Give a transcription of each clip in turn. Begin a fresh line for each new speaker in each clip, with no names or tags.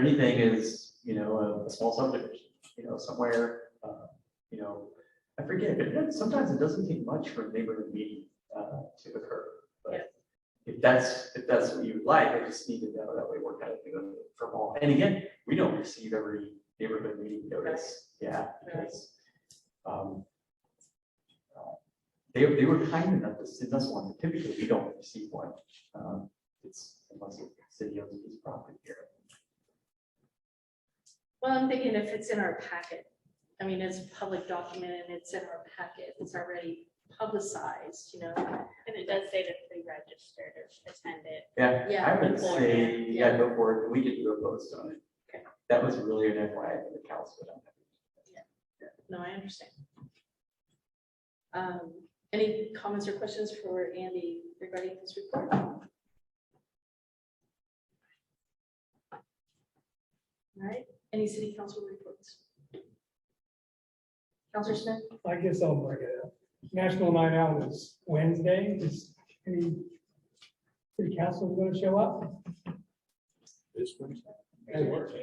anything is, you know, a- a small subdivision, you know, somewhere, uh, you know, I forget, but it- sometimes it doesn't take much for a neighborhood meeting uh, to occur.
Yeah.
But if that's, if that's what you'd like, I just need to know that we work out it from all. And again, we don't receive every neighborhood meeting notice. Yeah, because um, uh, they, they were kind enough to send us one. Typically, we don't receive one. Um, It's unless the city owns a piece of property here.
Well, I'm thinking if it's in our packet, I mean, it's a public document and it's in our packet, it's already publicized, you know?
And it does say to pre-register to attend it.
Yeah,
Yeah,
I would
before,
say,
yeah.
yeah, go for it. We could do a post on it.
Okay.
That was really an FYI for the council.
No, I understand. Um, any comments or questions for Andy regarding his report? All right, any city council reports? Councilor Smith?
I guess I'll bring it up. National Night Out is Wednesday. Is any city council going to show up?
This one?
It
works.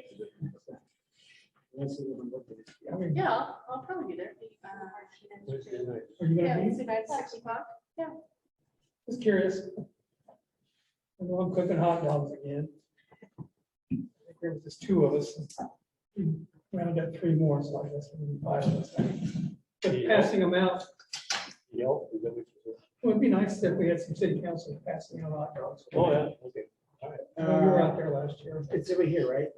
I mean,
Yeah, I'll- I'll probably be there. Uh,
are you
Yeah,
going to
it's about six o'clock.
be? Just curious. I know I'm cooking hot dogs again. I think There was just two of us. We Round up three more, so I guess we'll be five of us. But passing them out,
Yelp, is that what you said?
it would be nice if we had some city council passing out hot dogs.
Oh, yeah, okay.
I know You were out there last year.
Uh, It's over here, right?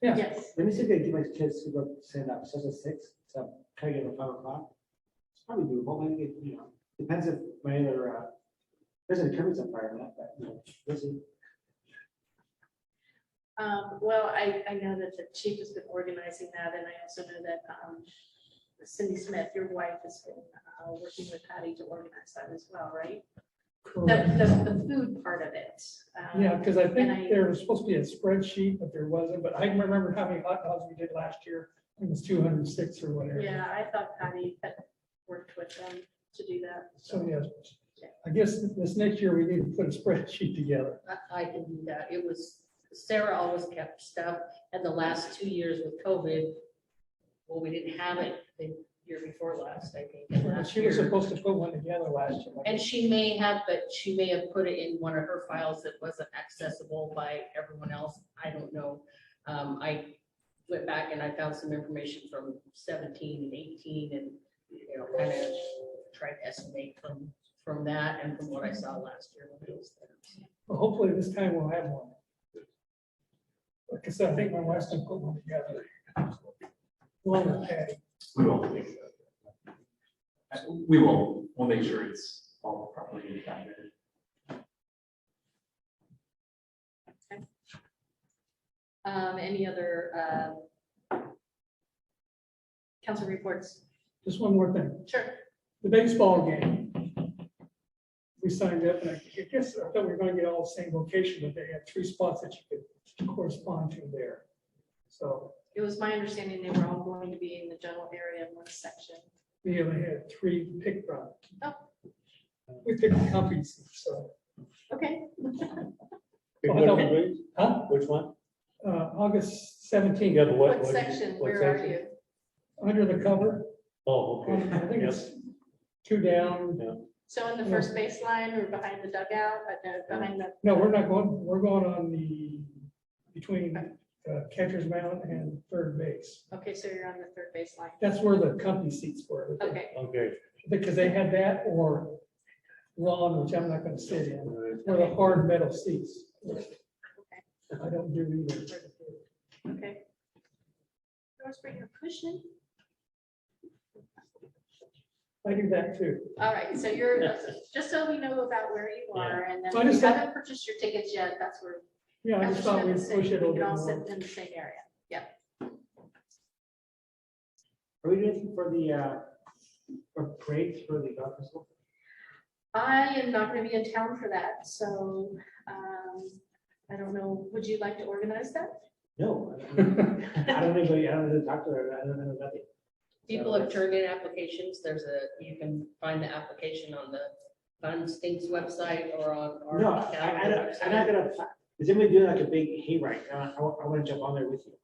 Yeah.
Yes,
Let me see if I can get my kids to go stand up, such as six, so try to get them five o'clock. It's probably doable, maybe, it, you know, depends if my other, uh, there's a Kermit's on fire, not that, you know, busy.
um, well, I, I know that the chief has been organizing that, and I also know that, um, Cindy Smith, your wife, has been, uh, working with Patty to organize that as well, right? The, the, the food part of it. um,
Yeah, because I
and I-
think there was supposed to be a spreadsheet, but there wasn't, but I can remember how many hot dogs we did last year. It was two hundred and six or whatever.
Yeah, I thought Patty had worked with them to do that.
So, yes, I guess this next year we need to put a spreadsheet together.
I- I can do that. It was, Sarah always kept stuff, and the last two years with COVID, well, we didn't have it the year before last, I think, and last
She was
year.
supposed to put one together last year.
And she may have, but she may have put it in one of her files that wasn't accessible by everyone else. I don't know. Um, I went back and I found some information from seventeen and eighteen and, you know, kind of tried to estimate from, from that and from what I saw last year when it was there.
Well, Hopefully this time we'll have one. Like I said, I think my wife's gonna put one together. Along with Patty.
We won't make that. Uh, We will, we'll make sure it's all properly documented.
Um, any other, um, council reports?
Just one more thing,
Sure.
the baseball game. We signed up and I guess I thought we were gonna get all the same location, but they had three spots that you could correspond to there. So
It was my understanding they were all going to be in the general area in one section.
We only had three to pick from.
Oh.
We picked copies, so,
Okay.
Oh,
Which
no.
one, please?
huh?
Which one?
Uh, August
You
seventeenth,
got the what?
What
what-
section,
what
where are
section?
you?
under the cover,
Oh, okay.
I think
Yep.
it's two down.
So in the first baseline or behind the dugout, but no, behind the,
No, we're not going, we're going on the, between uh, catcher's mound and third base.
okay, so you're on the third baseline.
That's where the company seats were.
Okay,
Okay.
Because they had that or lawn, which I'm not gonna sit in,
All right.
or the hard metal seats. I don't do either.
okay. Let's bring your cushion.
I do that too.
All right, so you're, just so we know about where you are and then
So I
if you
just thought-
haven't purchased your tickets yet, that's where.
Yeah, I just thought we'd
Councilor Smith said
push it a
We
little
can
bit
all
more.
sit in the same area.
Are we doing anything for the, uh, for parades for the golf festival?
I am not gonna be in town for that, so, um, I don't know, would you like to organize that?
No. I don't- I don't think, I don't know the doctor, I don't know nothing.
People have turned in applications. There's a, you can find the application on the Fun Stinks website or on our.
No, I, I don't, I'm not gonna, apply.
is anybody doing like a big hayride? I, I want to jump on there with you.